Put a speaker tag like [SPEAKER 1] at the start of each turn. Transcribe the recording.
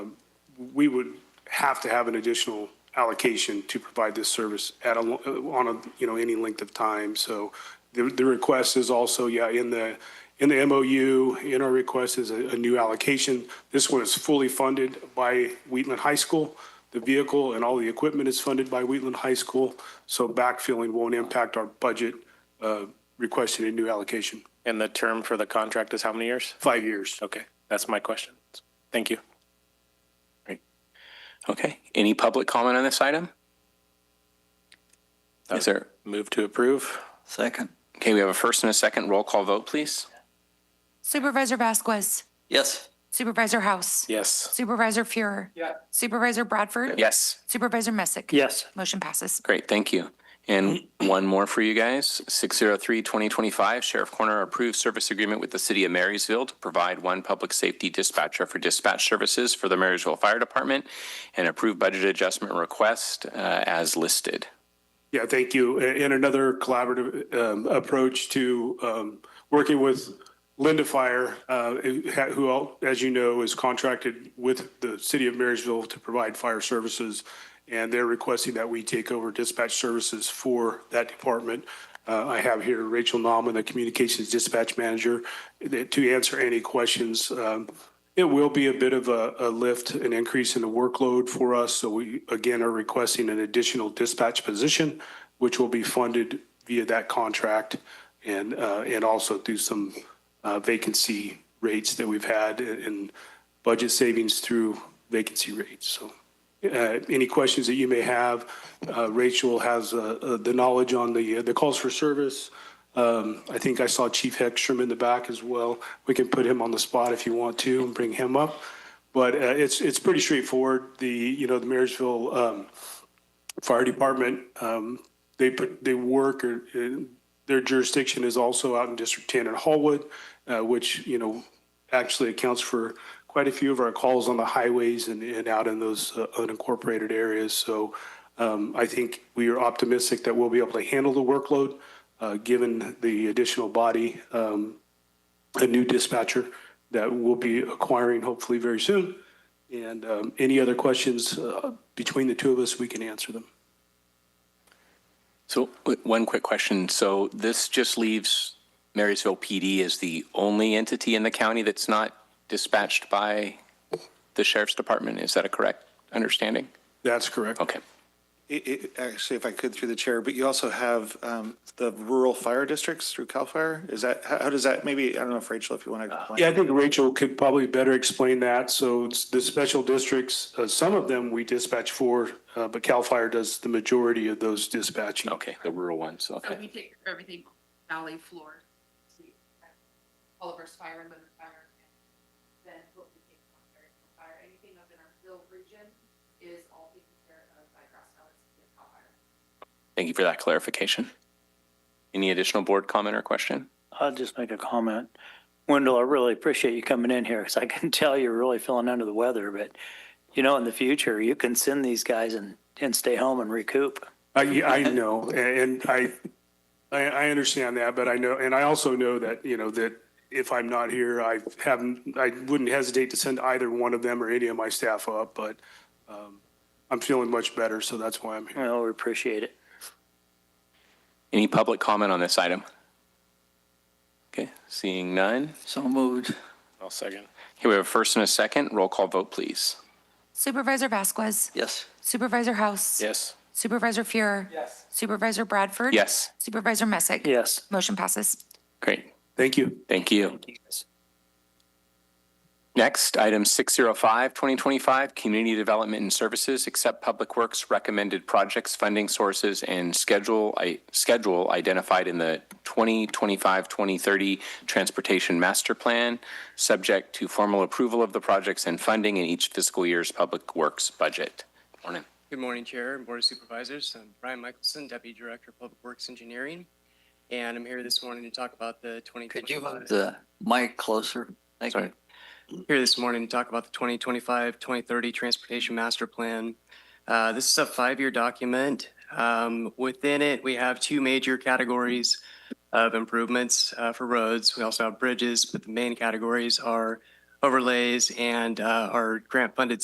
[SPEAKER 1] we would have to have an additional allocation to provide this service at a, lo- uh, on a, you know, any length of time. So the, the request is also, yeah, in the, in the MOU, in our request is a, a new allocation. This one is fully funded by Wheatland High School. The vehicle and all the equipment is funded by Wheatland High School. So backfilling won't impact our budget, uh, requesting a new allocation.
[SPEAKER 2] And the term for the contract is how many years?
[SPEAKER 1] Five years.
[SPEAKER 2] Okay, that's my question. Thank you.
[SPEAKER 3] Okay, any public comment on this item? Is there,
[SPEAKER 2] Move to approve?
[SPEAKER 4] Second.
[SPEAKER 3] okay, we have a first and a second roll call vote, please.
[SPEAKER 5] Supervisor Vasquez.
[SPEAKER 4] Yes.
[SPEAKER 5] Supervisor House.
[SPEAKER 2] Yes.
[SPEAKER 5] Supervisor Fuhrer. Supervisor Bradford.
[SPEAKER 3] Yes,
[SPEAKER 5] Supervisor Messick.
[SPEAKER 6] Yes.
[SPEAKER 5] Motion passes.
[SPEAKER 3] great, thank you. And one more for you guys, 603-2025, Sheriff Corner approved service agreement with the city of Marysville to provide one public safety dispatcher for dispatch services for the Marysville Fire Department and approve budget adjustment request uh, as listed.
[SPEAKER 1] Yeah, thank you. A- And another collaborative um, approach to um, working with Linda Fire, uh, who, ha- who al- as you know, is contracted with the city of Marysville to provide fire services. And they're requesting that we take over dispatch services for that department. Uh, I have here Rachel Nauman, the communications dispatch manager, that- to answer any questions um, it will be a bit of a, a lift, an increase in the workload for us. So we, again, are requesting an additional dispatch position, which will be funded via that contract and, uh, and also through some, uh, vacancy rates that we've had and budget savings through vacancy rates. So, uh, any questions that you may have, uh, Rachel has, uh, uh, the knowledge on the, uh, the calls for service. Um, I think I saw Chief Heckstrom in the back as well. We can put him on the spot if you want to and bring him up. But uh, it's, it's pretty straightforward. The, you know, the Marysville um, Fire Department, um, they put, they work, or uh, their jurisdiction is also out in District 10 in Hallwood, uh, which, you know, actually accounts for quite a few of our calls on the highways and, and out in those uh, unincorporated areas. So um, I think we are optimistic that we'll be able to handle the workload, uh, given the additional body, um, a new dispatcher that we'll be acquiring hopefully very soon. And um, any other questions uh, between the two of us, we can answer them.
[SPEAKER 3] So w- one quick question. So this just leaves Marysville PD as the only entity in the county that's not dispatched by the sheriff's department. Is that a correct understanding?
[SPEAKER 1] That's correct.
[SPEAKER 3] Okay.
[SPEAKER 7] It, it, actually, if I could through the chair, but you also have, um, the rural fire districts through CAL FIRE. Is that, how, how does that, maybe, I don't know if Rachel, if you want to.
[SPEAKER 1] Yeah, I think Rachel could probably better explain that. So it's the special districts, uh, some of them we dispatch for, uh, but CAL FIRE does the majority of those dispatching.
[SPEAKER 3] Okay, the rural ones.
[SPEAKER 8] So we
[SPEAKER 3] Okay.
[SPEAKER 8] take care of everything valley floor. so we have All of our fire, limit fire, and then what we take on fire, fire, anything up in our hill region is all taken care of by Grass Valley City of Cal Fire.
[SPEAKER 3] Thank you for that clarification. Any additional board comment or question?
[SPEAKER 6] I'll just make a comment. Wendell, I really appreciate you coming in here because I can tell you're really feeling under the weather, but you know, in the future, you can send these guys and, and stay home and recoup.
[SPEAKER 1] I, yeah, I know, and I, I, I understand that, but I know, and I also know that, you know, that if I'm not here, I haven't, I wouldn't hesitate to send either one of them or any of my staff up, but, um, I'm feeling much better, so that's why I'm here.
[SPEAKER 6] You know, we appreciate it.
[SPEAKER 3] Any public comment on this item? Okay, seeing none.
[SPEAKER 4] So moved.
[SPEAKER 2] I'll second.
[SPEAKER 3] Here we have a first and a second. Roll call vote, please.
[SPEAKER 5] Supervisor Vasquez.
[SPEAKER 4] Yes.
[SPEAKER 5] Supervisor House.
[SPEAKER 2] Yes.
[SPEAKER 5] Supervisor Fuhrer. Yes. Supervisor Bradford.
[SPEAKER 3] Yes.
[SPEAKER 5] Supervisor Messick.
[SPEAKER 6] Yes.
[SPEAKER 5] Motion passes.
[SPEAKER 3] Great.
[SPEAKER 1] Thank you.
[SPEAKER 3] Thank you. Next, item 605, 2025, Community Development and Services, accept Public Works recommended projects, funding sources, and schedule, I- schedule identified in the 2025-2030 Transportation Master Plan, subject to formal approval of the projects and funding in each fiscal year's Public Works budget. Morning.
[SPEAKER 9] Good morning, Chair and Board of Supervisors. I'm Brian Michelson, Deputy Director of Public Works Engineering, and I'm here this morning to talk about the 2025.
[SPEAKER 4] Could you move the mic closer? Thank
[SPEAKER 9] Sorry.
[SPEAKER 4] you.
[SPEAKER 9] Here this morning to talk about the 2025, 2030 Transportation Master Plan. Uh, This is a five-year document. Um, Within it, we have two major categories of improvements uh, for roads. We also have bridges, but the main categories are overlays and uh, our grant-funded